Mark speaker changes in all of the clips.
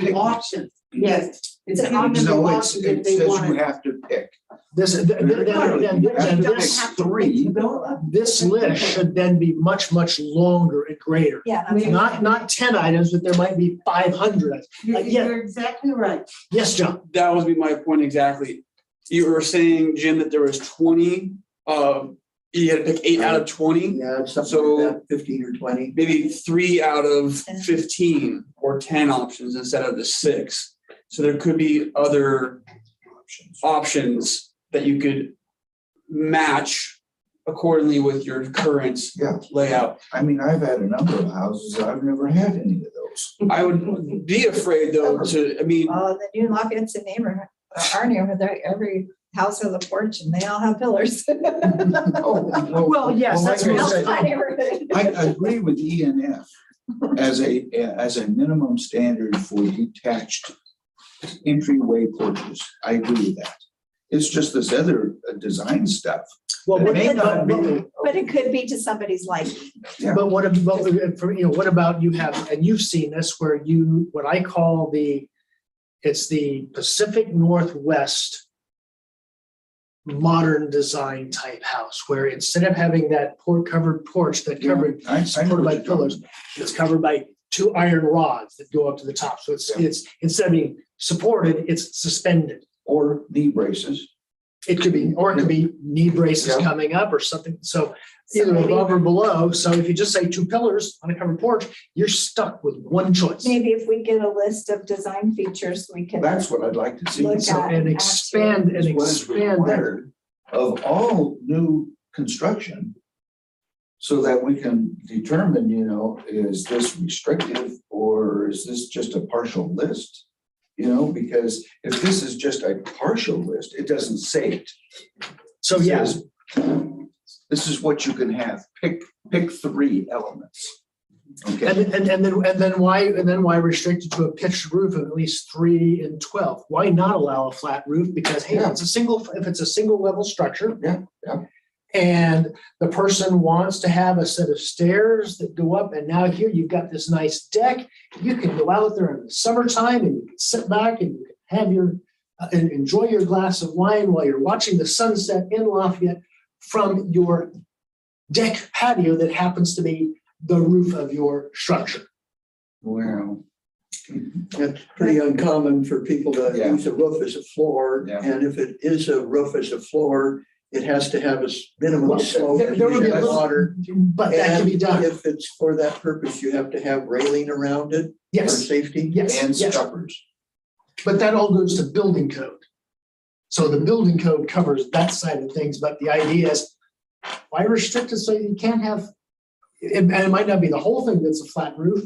Speaker 1: the option.
Speaker 2: Yes.
Speaker 1: It's an
Speaker 2: No,
Speaker 1: option,
Speaker 3: No, it's,
Speaker 1: option if
Speaker 3: it
Speaker 1: they
Speaker 3: says you
Speaker 1: want it.
Speaker 3: have to pick.
Speaker 4: This, th- th- then, then, then this three,
Speaker 1: No,
Speaker 4: this list should then be much, much longer and greater.
Speaker 2: Yeah. that's
Speaker 1: Maybe.
Speaker 2: what I'm
Speaker 4: Not,
Speaker 2: saying.
Speaker 4: not ten items, but there might be five hundred.
Speaker 1: You're,
Speaker 4: Like, yeah.
Speaker 1: you're exactly right.
Speaker 4: Yes, John,
Speaker 5: that was be my point exactly. You were saying, Jim, that there was twenty, um, you had to pick eight out of twenty,
Speaker 6: Yeah, it's something like
Speaker 5: So-
Speaker 6: that, fifteen or twenty.
Speaker 5: maybe three out of
Speaker 2: Ten.
Speaker 5: fifteen or ten options instead of the six. So there could be other options that you could match accordingly with your current
Speaker 3: Yeah.
Speaker 5: layout.
Speaker 3: I mean, I've had a number of houses. I've never had any of those.
Speaker 5: I would be afraid though to, I mean,
Speaker 2: Well, in uh, the new Lafayette neighborhood, our neighborhood, they- every house has a porch and they all have pillars.
Speaker 3: Well,
Speaker 4: yes, that's
Speaker 3: like I
Speaker 4: what I
Speaker 3: said,
Speaker 2: My neighborhood.
Speaker 3: I agree with E and F as a, as a minimum standard for detached entryway porches. I agree with that. It's just this other uh, design stuff.
Speaker 4: well,
Speaker 3: It
Speaker 4: what,
Speaker 3: may not
Speaker 4: but,
Speaker 3: be.
Speaker 4: but-
Speaker 2: But it could be to somebody's liking.
Speaker 4: but what, ab- but, uh, for, you know, what about you have, and you've seen this where you, what I call the, it's the Pacific Northwest modern design type house, where instead of having that port covered porch that covered
Speaker 3: I- I know
Speaker 4: covered
Speaker 3: what
Speaker 4: by
Speaker 3: you're talking
Speaker 4: pillars. It's covered by two iron rods that go up to the top. So it's,
Speaker 3: Yeah.
Speaker 4: it's, instead of being supported, it's suspended.
Speaker 3: Or knee braces.
Speaker 4: It could be, or it could be knee braces
Speaker 3: Yeah.
Speaker 4: coming up or something. So
Speaker 2: So
Speaker 4: either
Speaker 2: maybe-
Speaker 4: above or below. So if you just say two pillars on a covered porch, you're stuck with one choice.
Speaker 2: Maybe if we get a list of design features, we can.
Speaker 3: That's what I'd like to see.
Speaker 2: Look
Speaker 4: So, and expand and
Speaker 3: is what is
Speaker 4: expand that.
Speaker 3: required of all new construction. So that we can determine, you know, is this restrictive or is this just a partial list? You know, because if this is just a partial list, it doesn't say it.
Speaker 4: So
Speaker 3: It
Speaker 4: yeah,
Speaker 3: says, This is what you can have. Pick, pick three elements.
Speaker 4: and,
Speaker 3: Okay,
Speaker 4: and, and then, and then why, and then why restrict it to a pitched roof of at least three and twelve? Why not allow a flat roof? Because hey,
Speaker 3: Yeah.
Speaker 4: it's a single, if it's a single level structure,
Speaker 3: yeah, yeah.
Speaker 4: and the person wants to have a set of stairs that go up, and now here you've got this nice deck. You can go out there in the summertime and you can sit back and you can have your, uh, and enjoy your glass of wine while you're watching the sunset in Lafayette from your deck patio that happens to be the roof of your structure.
Speaker 3: Well,
Speaker 6: That's pretty uncommon for people to
Speaker 3: Yeah.
Speaker 6: use a roof as a floor.
Speaker 3: Yeah.
Speaker 6: And if it is a roof as a floor, it has to have a s- minimum
Speaker 4: Well,
Speaker 6: slope.
Speaker 4: there- there would be a
Speaker 6: and
Speaker 4: little-
Speaker 6: Water.
Speaker 4: But that can be
Speaker 6: And
Speaker 4: done.
Speaker 6: If it's for that purpose, you have to have railing around it for
Speaker 4: Yes,
Speaker 6: safety.
Speaker 3: and
Speaker 4: yes, yes.
Speaker 3: stuffers.
Speaker 4: But that all goes to building code. So the building code covers that side of things, but the idea is why restrict it so you can't have, and, and it might not be the whole thing that's a flat roof.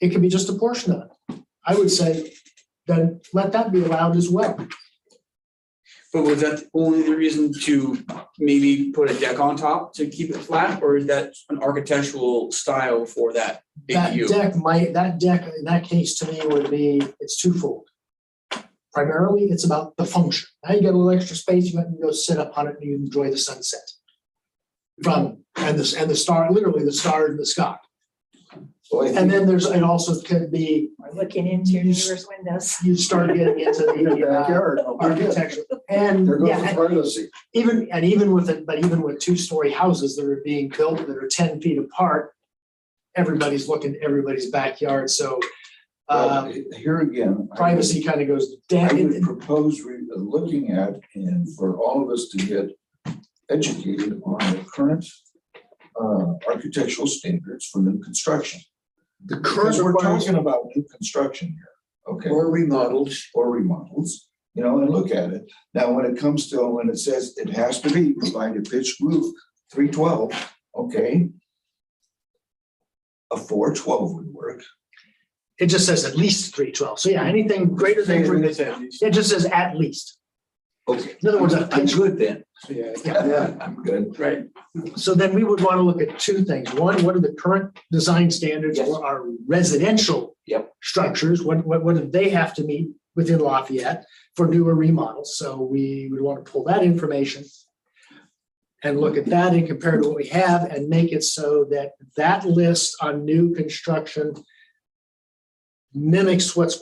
Speaker 4: It could be just a portion of it. I would say then let that be allowed as well.
Speaker 5: but was that only the reason to maybe put a deck on top to keep it flat? Or is that an architectural style for that
Speaker 4: That
Speaker 5: ADU?
Speaker 4: deck might, that deck in that case to me would be, it's twofold. Primarily, it's about the function. Now you get a little extra space, you can go sit up on it and you enjoy the sunset. From, and this, and the star, literally the stars in the sky.
Speaker 3: So I
Speaker 4: And
Speaker 3: think
Speaker 4: then there's, it also could be,
Speaker 2: We're Looking into your neighbor's windows.
Speaker 4: you start getting into
Speaker 3: your
Speaker 4: the uh,
Speaker 3: backyard, oh, my goodness,
Speaker 4: architecture. And
Speaker 3: There goes
Speaker 4: yeah,
Speaker 3: the
Speaker 4: and
Speaker 3: privacy.
Speaker 4: even, and even with it, but even with two-story houses that are being built that are ten feet apart, everybody's looking, at everybody's backyard, so
Speaker 3: Well,
Speaker 4: uh,
Speaker 3: Here again. I would-
Speaker 4: privacy kind of goes
Speaker 3: I
Speaker 4: down.
Speaker 3: would propose re- uh, looking at and for all of us to get educated on the current uh, architectural standards for new construction.
Speaker 4: The
Speaker 3: Because we're talking about new construction here, okay,
Speaker 6: Or remodels.
Speaker 3: or remodels, you know, and look at it. Now, when it comes to, when it says it has to be provided pitched roof, three twelve, okay? A four twelve would work.
Speaker 4: It just says at least three twelve, so yeah, anything greater than, three-
Speaker 5: That's at least.
Speaker 4: it just says at least.
Speaker 3: Okay.
Speaker 4: In other words, a
Speaker 3: I'm
Speaker 4: pitch
Speaker 3: good then.
Speaker 5: Yeah,
Speaker 3: Yeah, I'm good.
Speaker 5: right.
Speaker 4: So then we would want to look at two things. One, what are the current design standards
Speaker 3: Yes.
Speaker 4: for our residential
Speaker 3: Yep.
Speaker 4: structures? What, what, what do they have to meet within Lafayette for newer remodels? So we would want to pull that information and look at that and compare to what we have and make it so that that list on new construction mimics what's